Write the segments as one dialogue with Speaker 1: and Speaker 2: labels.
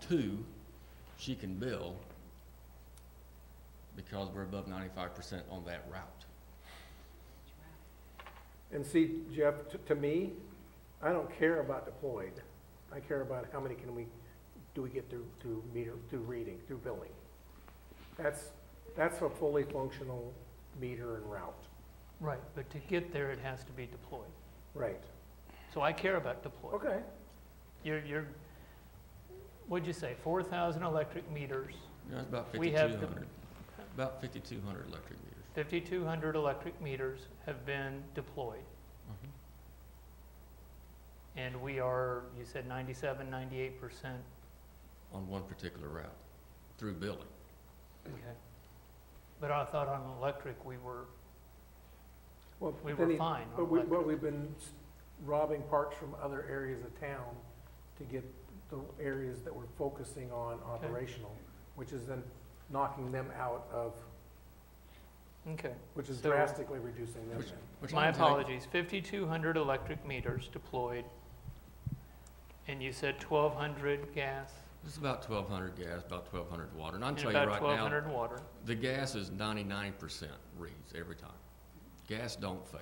Speaker 1: two, she can bill because we're above ninety-five percent on that route.
Speaker 2: And see, Jeff, t- to me, I don't care about deployed. I care about how many can we, do we get through, through meter, through reading, through billing? That's, that's a fully functional meter and route,
Speaker 3: Right, but to get there, it has to be deployed.
Speaker 2: right?
Speaker 3: So I care about deployed.
Speaker 2: Okay,
Speaker 3: You're, you're, what'd you say, four thousand electric meters,
Speaker 1: You know, it's about
Speaker 3: We
Speaker 1: fifty-two
Speaker 3: have
Speaker 1: hundred, about fifty-two hundred electric meters.
Speaker 3: fifty-two hundred electric meters have been deployed.
Speaker 1: Mhm.
Speaker 3: Mm-hmm. And we are, you said ninety-seven, ninety-eight percent,
Speaker 1: On one particular route, through billing.
Speaker 3: okay. But I thought on electric, we were,
Speaker 2: well,
Speaker 3: we
Speaker 2: then
Speaker 3: were
Speaker 2: he-
Speaker 3: fine on
Speaker 2: but we,
Speaker 3: electric.
Speaker 2: but we've been s- robbing parks from other areas of town to get the areas that we're focusing on operational, which is then knocking them out of,
Speaker 3: Okay,
Speaker 2: which is
Speaker 3: So-
Speaker 2: drastically reducing them.
Speaker 1: Which- which
Speaker 3: my
Speaker 1: I'm take-
Speaker 3: apologies, fifty-two hundred electric meters deployed. And you said twelve hundred gas
Speaker 1: It's about twelve hundred gas, about twelve hundred water, and I can
Speaker 3: and
Speaker 1: tell you
Speaker 3: about
Speaker 1: right
Speaker 3: twelve
Speaker 1: now,
Speaker 3: hundred water.
Speaker 1: the gas is ninety-nine percent reads every time. Gas don't fail.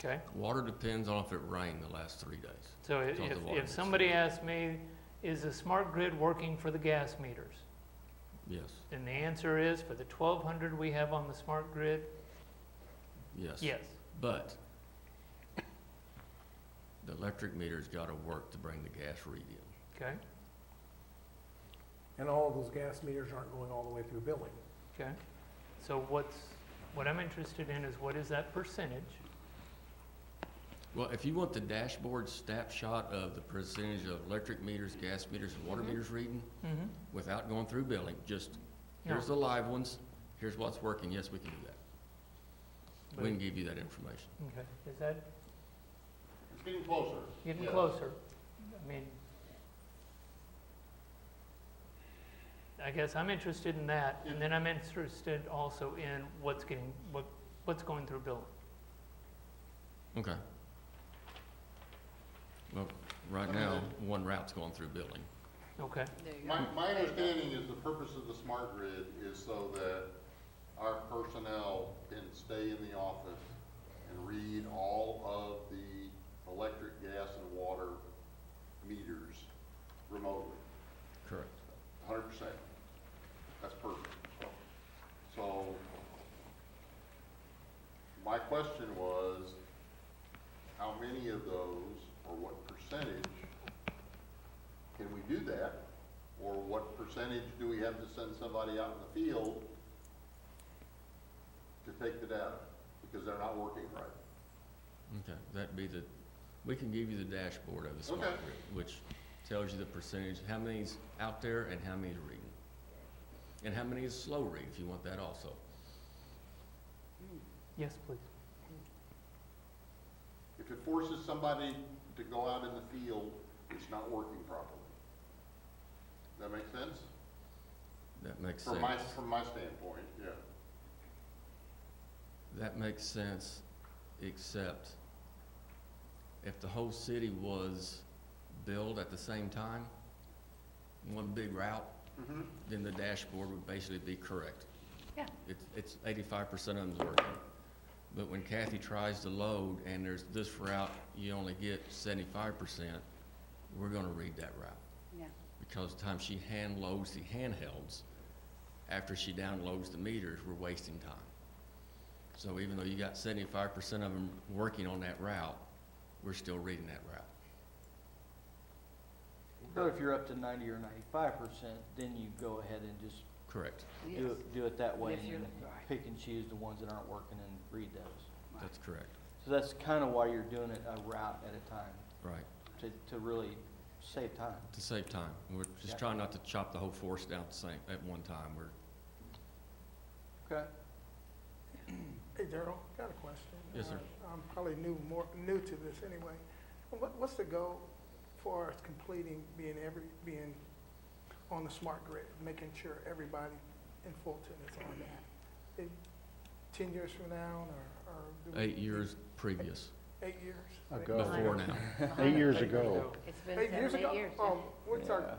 Speaker 3: Okay,
Speaker 1: Water depends on if it rained the last three days.
Speaker 3: so i-
Speaker 1: It's all the
Speaker 3: if,
Speaker 1: water
Speaker 3: if
Speaker 1: that's
Speaker 3: somebody
Speaker 1: there.
Speaker 3: asks me, is the smart grid working for the gas meters?
Speaker 1: Yes,
Speaker 3: Then the answer is, for the twelve hundred we have on the smart grid,
Speaker 1: yes.
Speaker 3: yes.
Speaker 1: But the electric meter's gotta work to bring the gas read in.
Speaker 3: Okay,
Speaker 2: And all of those gas meters aren't going all the way through billing.
Speaker 3: okay. So what's, what I'm interested in is what is that percentage?
Speaker 1: Well, if you want the dashboard snapshot of the percentage of electric meters, gas meters, and water
Speaker 3: Mhm.
Speaker 1: meters reading,
Speaker 3: Mm-hmm.
Speaker 1: without going through billing, just,
Speaker 3: No,
Speaker 1: here's the live ones, here's what's working, yes, we can do that.
Speaker 3: but-
Speaker 1: We can give you that information.
Speaker 3: okay, is that
Speaker 4: It's getting closer.
Speaker 3: getting
Speaker 4: Yes.
Speaker 3: closer? I mean, I guess I'm interested in that, and then I'm interested also in what's getting, what, what's going through billing.
Speaker 1: Okay. Well, right now, one route's going through billing.
Speaker 3: Okay,
Speaker 4: My, my understanding is the purpose of the smart grid is so that our personnel can stay in the office and read all of the electric, gas, and water meters remotely,
Speaker 1: Correct.
Speaker 4: hundred percent. That's perfect. So, my question was, how many of those, or what percentage, can we do that? Or what percentage do we have to send somebody out in the field to take the data? Because they're not working right.
Speaker 1: Okay, that'd be the, we can give you the dashboard of the smart
Speaker 4: Okay.
Speaker 1: grid, which tells you the percentage, how many's out there and how many's reading. And how many is slow read, if you want that also.
Speaker 3: yes, please.
Speaker 4: If it forces somebody to go out in the field, it's not working properly. That make sense?
Speaker 1: That makes
Speaker 4: From my,
Speaker 1: sense.
Speaker 4: from my standpoint, yeah.
Speaker 1: That makes sense, except if the whole city was billed at the same time, one big route,
Speaker 4: Mm-hmm.
Speaker 1: then the dashboard would basically be correct.
Speaker 5: Yeah.
Speaker 1: It's, it's eighty-five percent of them's working. But when Kathy tries to load and there's this route, you only get seventy-five percent, we're gonna read that route.
Speaker 5: Yeah.
Speaker 1: Because the time she hand loads the handhelds, after she downloads the meters, we're wasting time. So even though you got seventy-five percent of them working on that route, we're still reading that route.
Speaker 6: But if you're up to ninety or ninety-five percent, then you go ahead and just
Speaker 1: Correct,
Speaker 6: do it, do it that way
Speaker 5: if you're-
Speaker 6: and
Speaker 5: right.
Speaker 6: pick and choose the ones that aren't working and read those.
Speaker 1: that's correct,
Speaker 6: So that's kind of why you're doing it a route at a time,
Speaker 1: right,
Speaker 6: to, to really save time.
Speaker 1: to save time. We're just
Speaker 6: Yeah.
Speaker 1: trying not to chop the whole force down at the same, at one time, we're
Speaker 6: Okay.
Speaker 7: Hey Daryl, got a question.
Speaker 1: Yes, sir.
Speaker 7: Uh, I'm probably new, more, new to this anyway. What, what's the goal for us completing being every, being on the smart grid, making sure everybody in Fulton is on that? In Ten years from now, or, or? do we-
Speaker 1: Eight years previous,
Speaker 7: Eight years?
Speaker 8: Ago.
Speaker 1: before now.
Speaker 8: Eight years ago.
Speaker 5: It's been
Speaker 7: Eight
Speaker 5: seven,
Speaker 7: years ago?
Speaker 5: eight years. yeah.
Speaker 7: Oh, what's our,
Speaker 6: Yeah.